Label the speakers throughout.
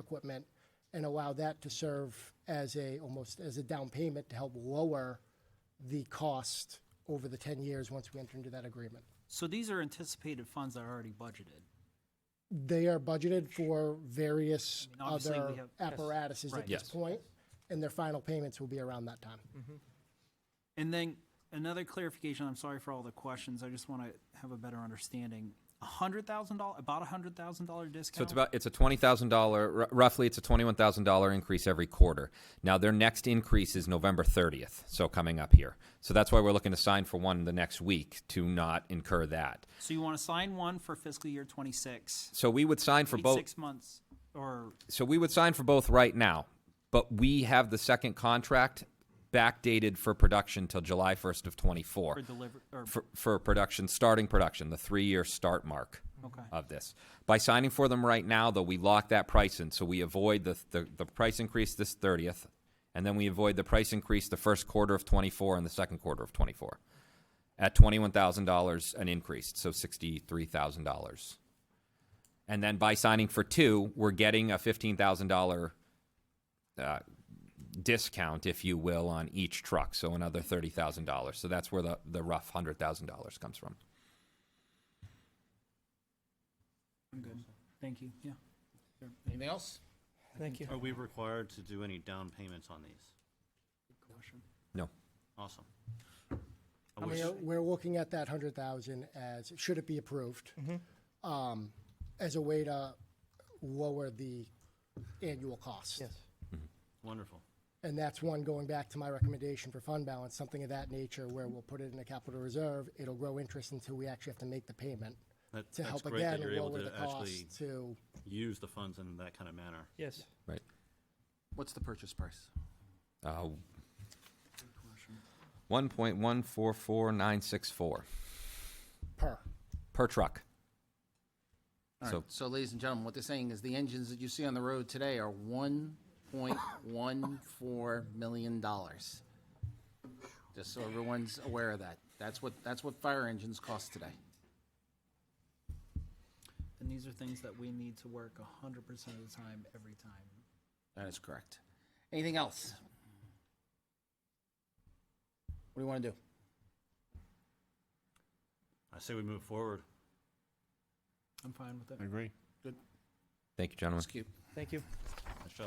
Speaker 1: equipment and allow that to serve as a, almost as a down payment to help lower the cost over the 10 years once we enter into that agreement.
Speaker 2: So these are anticipated funds that are already budgeted.
Speaker 1: They are budgeted for various
Speaker 2: I mean, obviously, we
Speaker 1: other
Speaker 2: have- yes.
Speaker 1: apparatuses
Speaker 2: Right.
Speaker 1: at this
Speaker 3: Yes.
Speaker 1: point, and their final payments will be around that time.
Speaker 2: Mm-hmm. And then another clarification, I'm sorry for all the questions, I just want to have a better understanding. A hundred thousand dollar, about a hundred thousand dollar discount?
Speaker 3: So it's about it's a twenty thousand dollar roughly it's a twenty one thousand dollar increase every quarter. Now their next increase is November thirtieth, so coming up here. So that's why we're looking to sign for one the next week to not incur that.
Speaker 2: So you want to sign one for fiscal year twenty-six?
Speaker 3: So we would sign for
Speaker 2: Wait
Speaker 3: both.
Speaker 2: Six months, or,
Speaker 3: So we would sign for both right now, but we have the second contract backdated for production till July first of twenty
Speaker 2: or
Speaker 3: four.
Speaker 2: deliver, or,
Speaker 3: For, for production, starting production, the three year start mark.
Speaker 2: okay.
Speaker 3: of this. By signing for them right now, though, we lock that price in, so we avoid the, the, the price increase this thirtieth, and then we avoid the price increase the first quarter of twenty-four and the second quarter of twenty-four. At twenty-one thousand dollars an increase, so sixty-three thousand dollars. And then by signing for two, we're getting a fifteen thousand dollar discount, if you will, on each truck, so another thirty thousand dollars. So that's where the, the rough hundred thousand dollars comes from.
Speaker 2: I'm good, thank you, yeah.
Speaker 4: Anything else?
Speaker 5: Thank you.
Speaker 6: Are we required to do any down payments on these?
Speaker 3: No.
Speaker 6: Awesome. I wish-
Speaker 1: We're, we're looking at that hundred thousand as, should it be approved,
Speaker 2: Mm-hmm.
Speaker 1: um, as a way to lower the annual cost.
Speaker 5: Yes.
Speaker 6: Wonderful.
Speaker 1: And that's one, going back to my recommendation for fund balance, something of that nature where we'll put it in a capital reserve, it'll grow interest until we actually have to make the payment.
Speaker 6: That-
Speaker 1: To
Speaker 6: That's
Speaker 1: help
Speaker 6: great that
Speaker 1: again
Speaker 6: you're able
Speaker 1: lower the
Speaker 6: to actually
Speaker 1: cost to,
Speaker 6: use the funds in that kind of manner.
Speaker 5: Yes.
Speaker 3: Right.
Speaker 4: What's the purchase price?
Speaker 3: Uh, One point one four four nine six four
Speaker 1: per.
Speaker 3: per truck. So
Speaker 4: So ladies and gentlemen, what they're saying is the engines that you see on the road today are one point one four million dollars. Just so everyone's aware of that. That's what, that's what fire engines cost today.
Speaker 2: And these are things that we need to work a hundred percent of the time, every time.
Speaker 4: That is correct. Anything else? What do you want to do?
Speaker 6: I say we move forward.
Speaker 2: I'm fine with it.
Speaker 7: agree.
Speaker 3: thank you, gentlemen.
Speaker 4: Let's keep.
Speaker 5: Thank you.
Speaker 6: Nice job.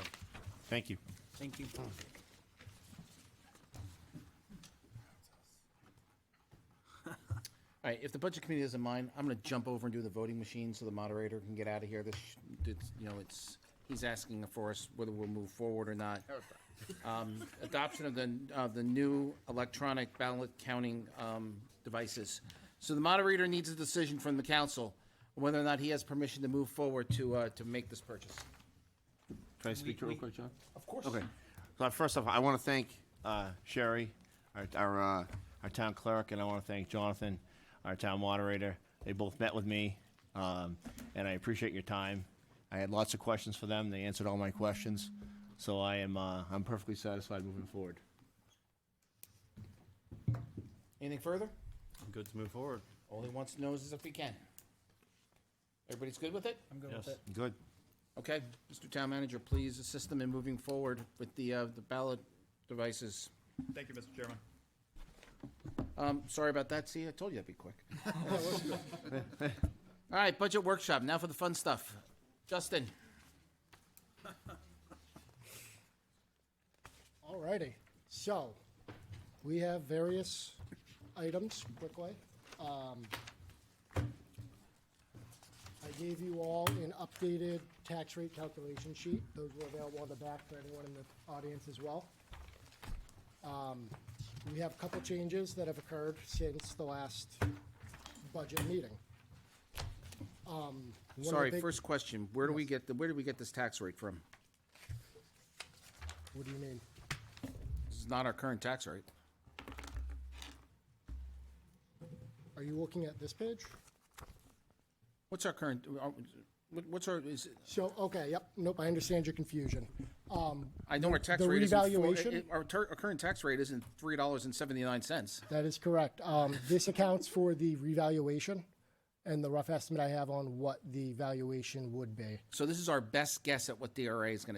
Speaker 7: Thank you.
Speaker 2: Thank you.
Speaker 4: All right, if the budget committee doesn't mind, I'm gonna jump over and do the voting machine so the moderator can get out of here. This, it's, you know, it's, he's asking for us whether we'll move forward or not. Um, Adoption of the, of the new electronic ballot counting, um, devices. So the moderator needs a decision from the council whether or not he has permission to move forward to, uh, to make this purchase.
Speaker 7: Can I speak to you real quick, John?
Speaker 4: Of course.
Speaker 7: Okay. So first off, I want to thank uh, Sherry, our, our, uh, our town clerk, and I want to thank Jonathan, our town moderator. They both met with me, um, and I appreciate your time. I had lots of questions for them. They answered all my questions, so I am, uh, I'm perfectly satisfied moving forward.
Speaker 4: Anything further?
Speaker 6: Good to move forward.
Speaker 4: All he wants to know is if we can. Everybody's good with it?
Speaker 2: I'm good with
Speaker 6: Yes.
Speaker 2: it.
Speaker 7: Good.
Speaker 4: Okay, Mr. Town Manager, please assist them in moving forward with the, uh, the ballot devices.
Speaker 8: Thank you, Mr. Chairman.
Speaker 4: Um, sorry about that, see, I told you that'd be quick. All right, budget workshop, now for the fun stuff. Justin,
Speaker 1: Alrighty, so, we have various items, quickly. Um, I gave you all an updated tax rate calculation sheet. Those were available on the back for anyone in the audience as well. Um, We have a couple changes that have occurred since the last budget meeting. Um, one of the
Speaker 4: sorry,
Speaker 1: big-
Speaker 4: first question, where do we get, the where did we get this tax rate from?
Speaker 1: What do you mean?
Speaker 4: This is not our current tax rate.
Speaker 1: Are you looking at this page?
Speaker 4: What's our current, uh, what- what's our, is, it-
Speaker 1: So, okay, yep, nope, I understand your confusion. Um,
Speaker 4: I know our tax
Speaker 1: The
Speaker 4: rate isn't. four-
Speaker 1: revaluation?
Speaker 4: it- it- Our, tur- our current tax rate isn't three dollars and seventy-nine cents.
Speaker 1: That is correct. Um, This accounts for the revaluation and the rough estimate I have on what the valuation would be.
Speaker 4: So this is our best guess at what DRA is going to